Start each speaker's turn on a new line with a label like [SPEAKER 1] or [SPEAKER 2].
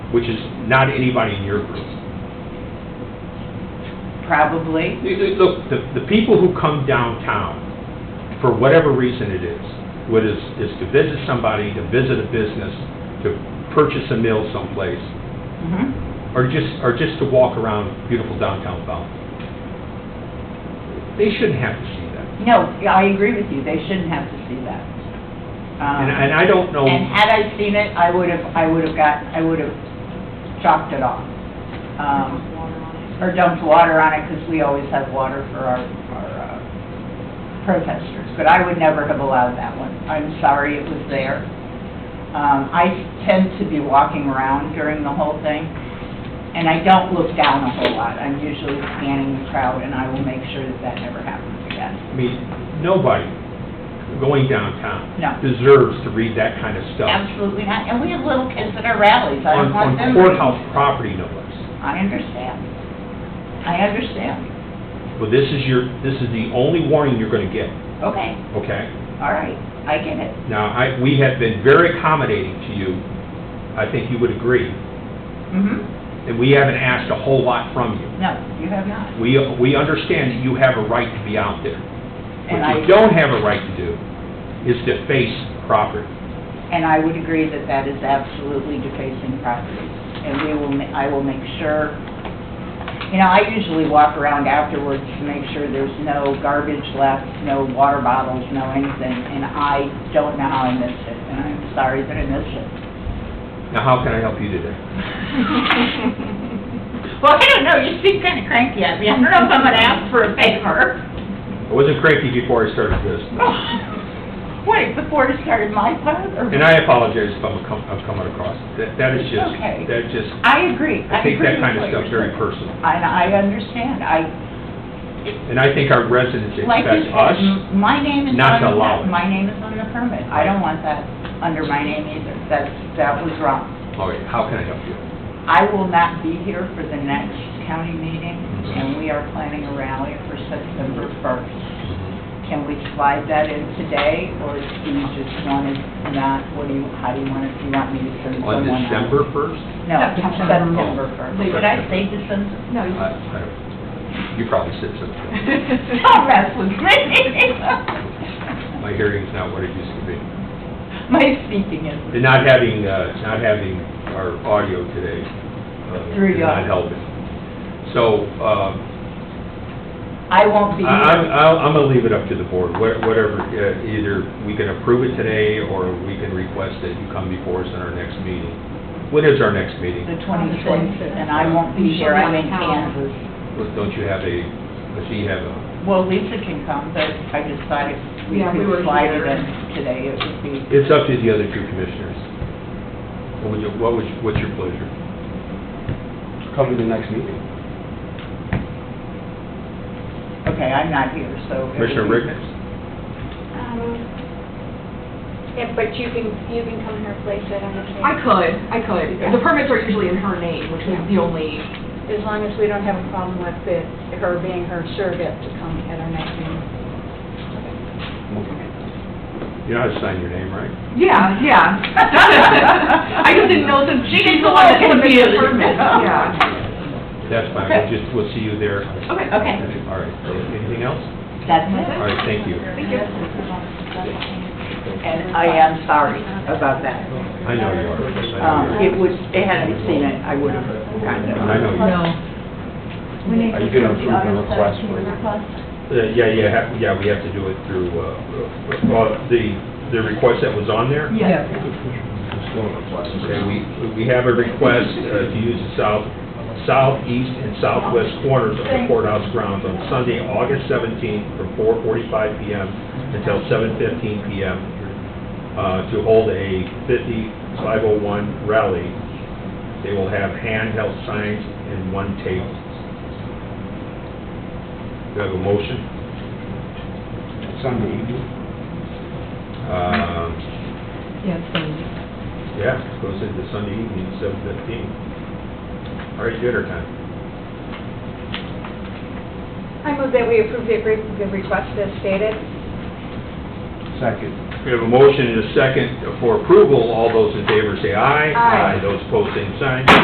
[SPEAKER 1] which is not anybody in your group.
[SPEAKER 2] Probably.
[SPEAKER 1] You- you- Look, the, the people who come downtown, for whatever reason it is, what is, is to visit somebody, to visit a business, to purchase a meal someplace,
[SPEAKER 2] Mhm.
[SPEAKER 1] or just, or just to walk around beautiful downtown Belleville. They shouldn't have to see that.
[SPEAKER 2] No, I agree with you, they shouldn't have to see that. Um,
[SPEAKER 1] And, and I don't know,
[SPEAKER 2] And had I seen it, I would have, I would have got, I would have chopped it off. Um, Or dumped water on it, because we always have water for our, our uh, protesters. But I would never have allowed that one. I'm sorry it was there. Um, I tend to be walking around during the whole thing, and I don't look down a whole lot. I'm usually scanning the crowd, and I will make sure that that never happens again.
[SPEAKER 1] I mean, nobody going downtown
[SPEAKER 2] No.
[SPEAKER 1] deserves to read that kind of stuff
[SPEAKER 2] Absolutely not. And we have little kids at our rallies. I
[SPEAKER 1] on,
[SPEAKER 2] don't want
[SPEAKER 1] on
[SPEAKER 2] them.
[SPEAKER 1] courthouse property, no less.
[SPEAKER 2] I understand. I understand.
[SPEAKER 1] Well, this is your, this is the only warning you're gonna get,
[SPEAKER 2] Okay,
[SPEAKER 1] okay?
[SPEAKER 2] all right, I get it.
[SPEAKER 1] Now, I, we have been very accommodating to you, I think you would agree,
[SPEAKER 2] Mm-hmm.
[SPEAKER 1] and we haven't asked a whole lot from you.
[SPEAKER 2] No, you have not.
[SPEAKER 1] We, we understand that you have a right to be out there.
[SPEAKER 2] And
[SPEAKER 1] What
[SPEAKER 2] I,
[SPEAKER 1] you don't have a right to do is to face property.
[SPEAKER 2] and I would agree that that is absolutely defacing property. And we will, ma- I will make sure, you know, I usually walk around afterwards to make sure there's no garbage left, no water bottles, no anything, and I don't know how I missed it, and I'm sorry that I missed it.
[SPEAKER 1] Now, how can I help you today?
[SPEAKER 2] Well, I don't know, you seem kind of cranky at me. I don't know if I'm going to ask for a favor.
[SPEAKER 1] I wasn't cranky before I started this,
[SPEAKER 2] Wait, before it started my part, or?
[SPEAKER 1] and I apologize if I'm, com- I'm coming across, that, that is just,
[SPEAKER 2] Okay.
[SPEAKER 1] that just,
[SPEAKER 2] I agree.
[SPEAKER 1] I take that
[SPEAKER 2] agree
[SPEAKER 1] kind of
[SPEAKER 2] with
[SPEAKER 1] stuff
[SPEAKER 2] what
[SPEAKER 1] very
[SPEAKER 2] you're saying.
[SPEAKER 1] personal.
[SPEAKER 2] And I understand, I,
[SPEAKER 1] And I think our residents
[SPEAKER 2] like
[SPEAKER 1] expect
[SPEAKER 2] you
[SPEAKER 1] us
[SPEAKER 2] said, m- my name is
[SPEAKER 1] not to
[SPEAKER 2] not on
[SPEAKER 1] allow it.
[SPEAKER 2] the, my name is on the permit. I don't want that under my name either, that's, that was wrong.
[SPEAKER 1] All right, how can I help you?
[SPEAKER 2] I will not be here for the next county meeting,
[SPEAKER 1] Mhm.
[SPEAKER 2] and we are planning a rally for September first. Can we slide that in today, or do you just want it not, what do you, how do you want it, do you want me to send
[SPEAKER 1] On
[SPEAKER 2] someone out?
[SPEAKER 1] December 1st?
[SPEAKER 2] No, September first.
[SPEAKER 1] Wait, did I say
[SPEAKER 2] December?
[SPEAKER 3] No,
[SPEAKER 1] I-
[SPEAKER 3] you-
[SPEAKER 1] I don't- You probably said something.
[SPEAKER 2] Don't mess with me.
[SPEAKER 1] My hearing's not what it used to be.
[SPEAKER 2] My speaking is,
[SPEAKER 1] And not having, uh, not having our audio today uh,
[SPEAKER 2] Through
[SPEAKER 1] did not
[SPEAKER 2] you.
[SPEAKER 1] help it. So um,
[SPEAKER 2] I
[SPEAKER 1] I-
[SPEAKER 2] won't be
[SPEAKER 1] I'm,
[SPEAKER 2] here.
[SPEAKER 1] I'll- I'm going to leave it up to the board, Wha- whatever, uh, either we can approve it today or we can request that you come before us in our next meeting. When is our next meeting?
[SPEAKER 2] The twenty-sixth, and I won't be here, I'm in Kansas.
[SPEAKER 1] Don't you have a, does he have a?
[SPEAKER 2] Well, Lisa can come, but I just thought if we
[SPEAKER 3] Yeah, we
[SPEAKER 2] could
[SPEAKER 3] were
[SPEAKER 2] slide it
[SPEAKER 3] here.
[SPEAKER 2] in today, it would be,
[SPEAKER 1] It's up to the other two commissioners. What would you, what would, you- what's your pleasure?
[SPEAKER 4] come to the next meeting.
[SPEAKER 2] okay, I'm not here, so. it would
[SPEAKER 1] Commissioner
[SPEAKER 2] be-
[SPEAKER 1] Rickman?
[SPEAKER 5] Um, Yeah, Um, but you can, you can come here, place it on the
[SPEAKER 3] I
[SPEAKER 5] camera,
[SPEAKER 3] could, I could. The permits are usually in her name, which is the only,
[SPEAKER 5] as long as we don't have a problem with it, her being her surrogate to come at our next meeting.
[SPEAKER 1] You know how to sign your name, right?
[SPEAKER 3] yeah, yeah. I just didn't know since she's the one that submitted the permit, yeah.
[SPEAKER 1] That's fine, we'll just, we'll see you there.
[SPEAKER 3] Okay.
[SPEAKER 2] Okay,
[SPEAKER 1] All right, anything else?
[SPEAKER 2] that's it.
[SPEAKER 1] All right, thank you.
[SPEAKER 2] And I am sorry about that.
[SPEAKER 1] I know you are. I know
[SPEAKER 2] Um,
[SPEAKER 1] you
[SPEAKER 2] it was, it hadn't seen it, I would have gotten it.
[SPEAKER 1] are. I know you are.
[SPEAKER 4] Are you going to approve the request for
[SPEAKER 1] Uh, Yeah, yeah, ha- yeah, we have to do it through, uh, uh, uh, the, the request that was on there?
[SPEAKER 3] Yes.
[SPEAKER 1] Okay, we, we have a request uh, to use the south, southeast and southwest corners of the courthouse grounds on Sunday, August 17th, from 4:45 PM until 7:15 PM, uh, to hold a 5501 rally. They will have handheld signs and one table. Do I have a motion?
[SPEAKER 4] Sunday evening?
[SPEAKER 1] Um, Yeah, goes into Sunday evening, seven fifteen. All right, dinner time.
[SPEAKER 5] I move that we approve the agree- the request as stated.
[SPEAKER 4] Second.
[SPEAKER 1] We have a motion and a second for approval. All those in favor say aye.
[SPEAKER 5] Aye.
[SPEAKER 1] Those opposed, same sign.